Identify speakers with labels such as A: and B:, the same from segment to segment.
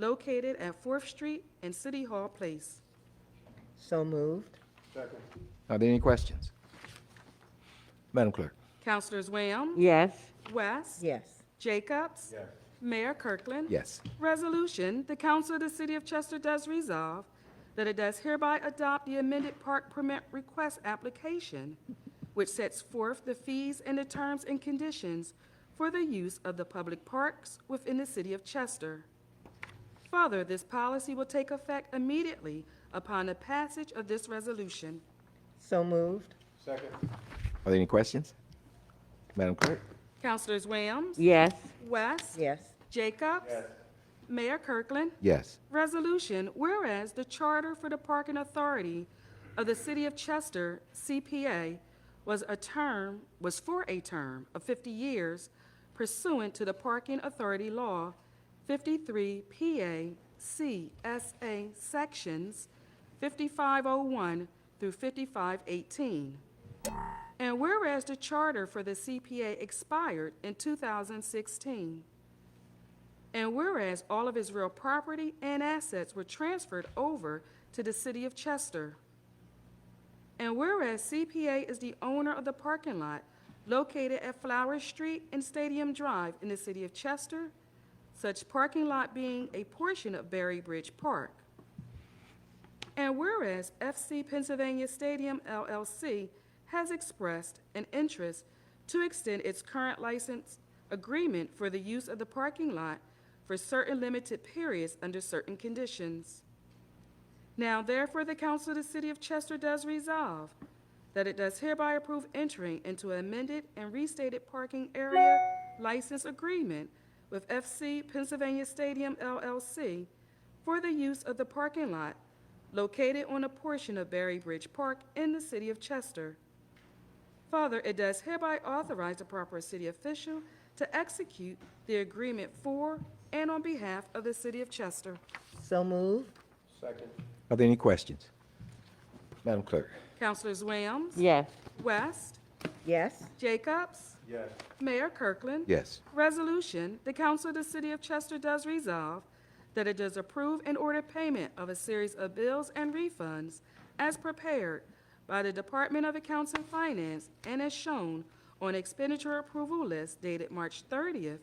A: located at Fourth Street and City Hall Place.
B: So moved.
C: Are there any questions? Madam Clerk?
A: Councilors Wham?
B: Yes.
A: West?
B: Yes.
A: Jacobs? Mayor Kirkland?
C: Yes.
A: Resolution, the Council of the City of Chester does resolve that it does hereby adopt the amended park permit request application, which sets forth the fees and the terms and conditions for the use of the public parks within the City of Chester. Further, this policy will take effect immediately upon the passage of this resolution.
B: So moved.
C: Are there any questions? Madam Clerk?
A: Councilors Williams?
B: Yes.
A: West?
B: Yes.
A: Jacobs? Mayor Kirkland?
C: Yes.
A: Resolution, whereas the Charter for the Parking Authority of the City of Chester, CPA, was a term, was for a term of 50 years pursuant to the Parking Authority Law 53 PA CSA Sections 5501 through 5518. And whereas the Charter for the CPA expired in 2016. And whereas all of his real property and assets were transferred over to the city of Chester. And whereas CPA is the owner of the parking lot located at Flower Street and Stadium Drive in the city of Chester, such parking lot being a portion of Berry Bridge Park. And whereas FC Pennsylvania Stadium LLC has expressed an interest to extend its current license agreement for the use of the parking lot for certain limited periods under certain conditions. Now therefore, the Council of the City of Chester does resolve that it does hereby approve entering into an amended and restated parking area license agreement with FC Pennsylvania Stadium LLC for the use of the parking lot located on a portion of Berry Bridge Park in the city of Chester. Further, it does hereby authorize the proper city official to execute the agreement for and on behalf of the city of Chester.
B: So moved.
C: Are there any questions? Madam Clerk?
A: Councilors Williams?
B: Yes.
A: West?
B: Yes.
A: Jacobs? Yes. Mayor Kirkland?
C: Yes.
A: Resolution, the Council of the City of Chester does resolve that it does approve and order payment of a series of bills and refunds as prepared by the Department of Accounts and Finance and as shown on expenditure approval list dated March 30th,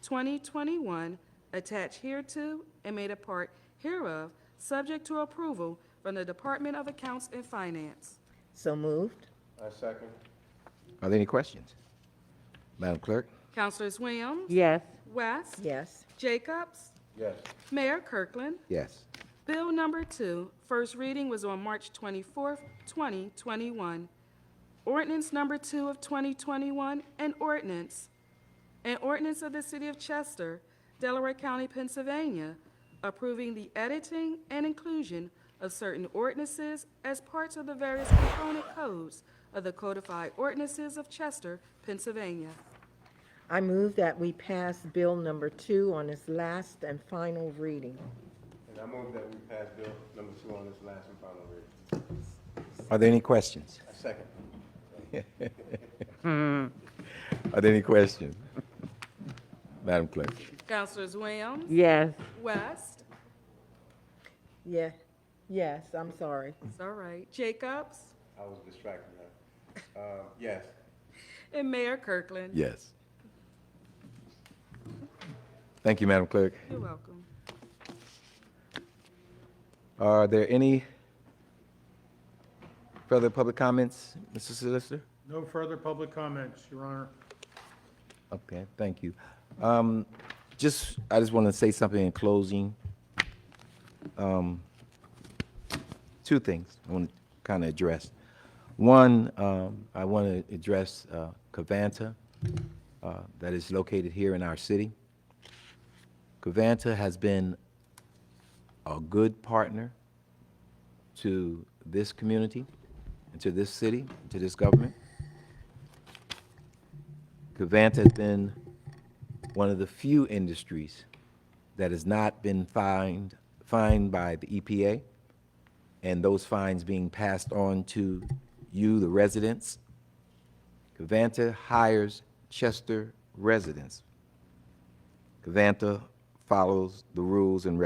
A: 2021, attached hereto and made a part hereof, subject to approval from the Department of Accounts and Finance.
B: So moved.
C: Are there any questions? Madam Clerk?
A: Councilors Williams?
B: Yes.
A: West?
B: Yes.
A: Jacobs?
C: Yes.
A: Mayor Kirkland?
C: Yes.
A: Bill number two, first reading was on March 24th, 2021. Ordinance number two of 2021, an ordinance, an ordinance of the City of Chester, Delaware County, Pennsylvania, approving the editing and inclusion of certain ordinances as parts of the various component codes of the codified ordinances of Chester, Pennsylvania.
B: I move that we pass Bill number two on its last and final reading.
D: And I move that we pass bill number two on this last and final reading.
C: Are there any questions?
D: I second.
C: Are there any questions? Madam Clerk?
A: Councilors Williams,
B: Yes.
A: West,
B: Yeah. Yes, I'm sorry.
A: it's all right, Jacobs,
D: I was distracted, man. Uh, yes,
A: and Mayor Kirkland.
C: Yes. Thank you, Madam Clerk.
A: You're welcome.
C: Are there any further public comments, Mr. Solicitor?
E: No further public comments, Your Honor.
C: Okay, thank you. Um, Just, I just want to say something in closing. Um, Two things I want to kind of address. One, um, I want to address uh, Covanta uh, that is located here in our city. Covanta has been a good partner to this community, and to this city, to this government. Covanta has been one of the few industries that has not been fined, fined by the EPA, and those fines being passed on to you, the residents. Covanta hires Chester residents. Covanta follows the rules and